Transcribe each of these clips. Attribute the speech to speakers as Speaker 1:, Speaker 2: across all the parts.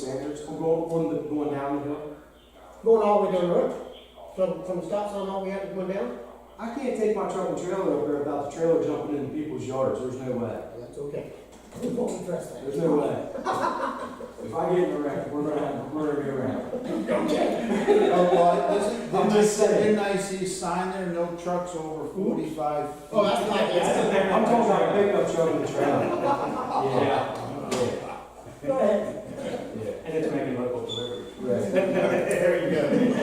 Speaker 1: standards?
Speaker 2: We're going, on the, going down the hill.
Speaker 3: Going all the way down the road, from, from the stop sign all the way out to going down?
Speaker 2: I can't take my truck and trailer up there without the trailer jumping into people's yards, there's no way.
Speaker 3: That's okay. We won't address that.
Speaker 2: There's no way. If I get in a wreck, we're gonna have, we're gonna be around.
Speaker 1: Oh, well, listen,
Speaker 2: I'm just saying.
Speaker 1: Didn't I see a sign there, no trucks over forty-five?
Speaker 3: Oh, that's not, that's,
Speaker 2: I'm talking about a pickup truck and a trailer. Yeah, yeah,
Speaker 3: go ahead.
Speaker 2: yeah.
Speaker 4: And it's making local delivery.
Speaker 2: Right.
Speaker 4: There you go.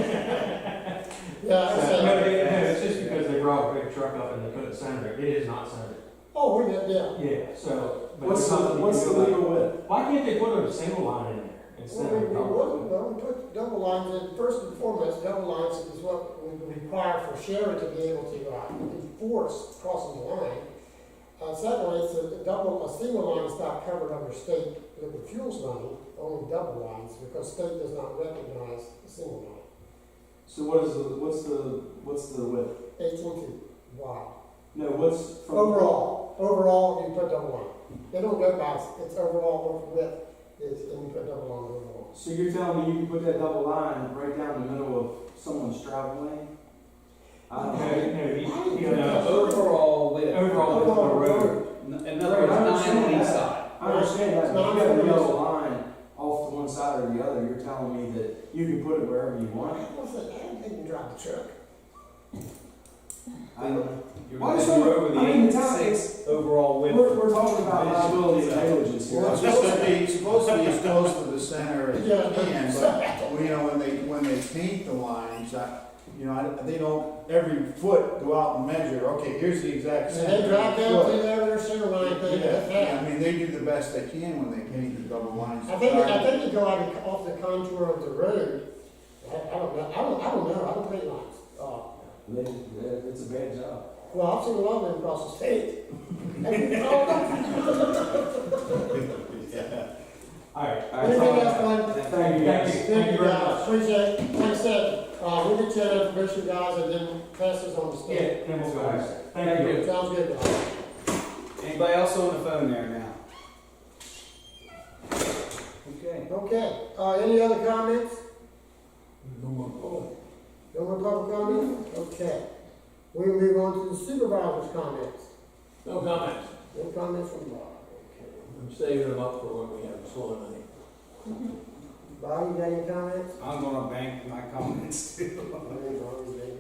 Speaker 3: Yeah, I
Speaker 4: No,
Speaker 3: said,
Speaker 4: it- no, it's just because they brought a big truck up and they put it centered, it is not centered.
Speaker 3: oh, we're good, yeah.
Speaker 4: Yeah, so. but
Speaker 2: What's
Speaker 4: there's
Speaker 2: the,
Speaker 4: nothing you
Speaker 2: what's
Speaker 4: can
Speaker 2: the
Speaker 4: do about it.
Speaker 2: legal width?
Speaker 4: Why can't they put a single line in there
Speaker 3: Well,
Speaker 4: instead
Speaker 3: we,
Speaker 4: of?
Speaker 3: we would, well, we put double lines in, first and foremost, double lines is what we require for Sharon to be able to uh, enforce crossing the line. Uh, secondly, it's a double, a single line is not covered under state liquid fuels money, only double lines, because state does not recognize a single line.
Speaker 2: So what is the, what's the, what's the width?
Speaker 3: Eighteen feet wide.
Speaker 2: No, what's from?
Speaker 3: Overall, overall, you put double line. They don't go by, it's overall width, is, and you put double line overall.
Speaker 2: So you're telling me you can put that double line right down the middle of someone's travel lane? I
Speaker 4: No,
Speaker 2: don't
Speaker 4: no,
Speaker 2: know.
Speaker 4: you- you
Speaker 5: No,
Speaker 4: know, uh,
Speaker 5: overall width.
Speaker 4: Overall width of the road.
Speaker 5: N- In other words, nine on each side.
Speaker 2: I understand that, but if you have a yellow line off to one side or the other, you're telling me that you can put it wherever you want it?
Speaker 3: What's that? I didn't even drive the truck.
Speaker 2: I don't-
Speaker 5: You're
Speaker 2: Why does
Speaker 5: you're
Speaker 2: someone-
Speaker 5: over the
Speaker 2: I mean, the town-
Speaker 5: 86 overall width.
Speaker 2: We're, we're talking about liability and negligence here.
Speaker 1: Well, it's supposed to be, supposed to be as close to the center as you can, but, well, you know, when they, when they paint the lines, I, you know, I, they don't every foot go out and measure, okay, here's the exact
Speaker 3: And
Speaker 1: center.
Speaker 3: they drive down
Speaker 1: foot.
Speaker 3: through there, their center line, they get
Speaker 1: Yeah,
Speaker 3: that.
Speaker 1: I mean, they do the best they can when they paint the double lines.
Speaker 3: I think, I think they go out and off the contour of the road. I, I don't know, I don't, I don't know, I don't paint lines. Uh,
Speaker 2: They- they- It's a bad job.
Speaker 3: Well, I've seen a lot of them across the state. I mean, oh,
Speaker 1: Yeah.
Speaker 4: All right.
Speaker 3: Anything else, Glenn?
Speaker 2: Thank you
Speaker 4: Thank
Speaker 2: guys.
Speaker 4: you.
Speaker 3: Thank you,
Speaker 4: very
Speaker 3: guys,
Speaker 4: much.
Speaker 3: appreciate it. Like I said, uh, we'll get you that information, guys, and then pass this on to
Speaker 4: Yeah,
Speaker 3: state.
Speaker 4: then we'll go ahead. Thank you.
Speaker 3: Sounds good, guys.
Speaker 5: Anybody else on the phone there now? Okay.
Speaker 3: Okay, uh, any other comments? No more public comments, okay. We move on to the supervisor's comments.
Speaker 6: No comments.
Speaker 3: No comments from Bob.
Speaker 6: I'm saving them up for when we have solar money.
Speaker 3: Bob, you got any comments?
Speaker 5: I'm gonna bank my comments.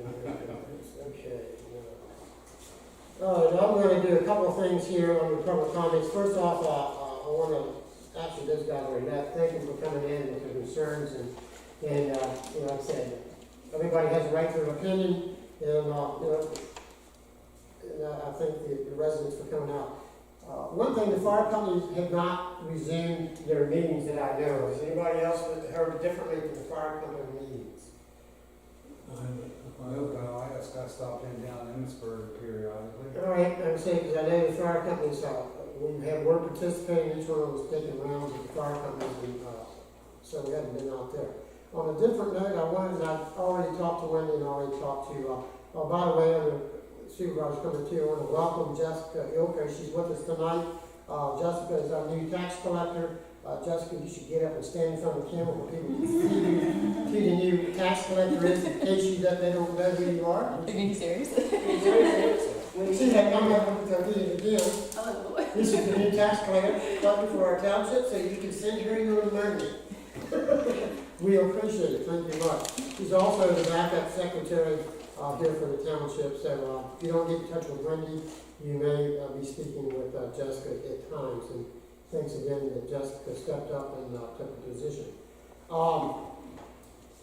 Speaker 3: Okay. no. All right, I'm gonna do a couple of things here on the public comments. First off, uh, uh, I wanna, actually, those guys already left, thank you for coming in with your concerns and, and, uh, you know, like I said, everybody has a right to an opinion, and, uh, you know, and uh, I I thank the the residents for coming out. Uh, One thing, the fire companies have not resumed their meetings that I know. Has anybody else that heard differently from the fire company meetings?
Speaker 5: I hope I just got stopped in down in Emmitsburg periodically.
Speaker 3: All right, I'm saying, because I know the fire companies, uh, we had one participating, each one of us taking rounds with the fire companies, and, uh, so we haven't been out there. On a different note, I wanted, I've already talked to Wendy and already talked to, uh, oh, by the way, I'm a supervisor coming to, I want to welcome Jessica Ilka, she's with us tonight. Uh, Jessica is our new tax collector, uh, Jessica, you should get up and stand in front of the camera when people see you, who the new tax collector is, in case you, that they don't know who you are.
Speaker 7: Are you serious?
Speaker 3: When you see that number, I'm gonna do it again.
Speaker 7: Oh,
Speaker 3: This is the new tax collector, collector for our township, so you can send her your money. We appreciate it, thank you much. She's also the backup secretary, uh, here for the township, so, uh, if you don't get in touch with Wendy, you may, uh, be speaking with, uh, Jessica at times, and thanks again that Jessica stepped up and, uh, took the position. Um,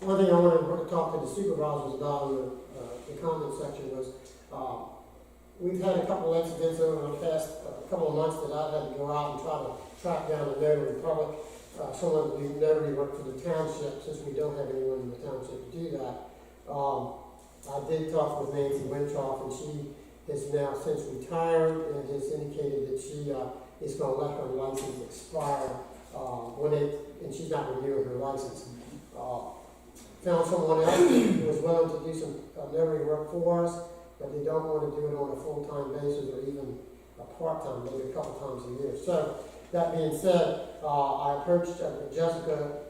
Speaker 3: one thing I wanted to talk to the supervisors about in the, uh, the comment section was, uh, We've had a couple of incidents over the past, uh couple of months that I've had to go out and try to track down a notary public, uh, someone to do notary work for the township, since we don't have anyone in the township to do that. Um, I did talk with Nancy Wintroff, and she has now since retired and has indicated that she, uh, is gonna let her license expire, uh, when it, and she's not renewing her license. Uh, Found someone else who was willing to do some uh, notary work for us, but they don't want to do it on a full-time basis or even a part-time, maybe a couple times a year. So, that being said, uh, I approached uh, Jessica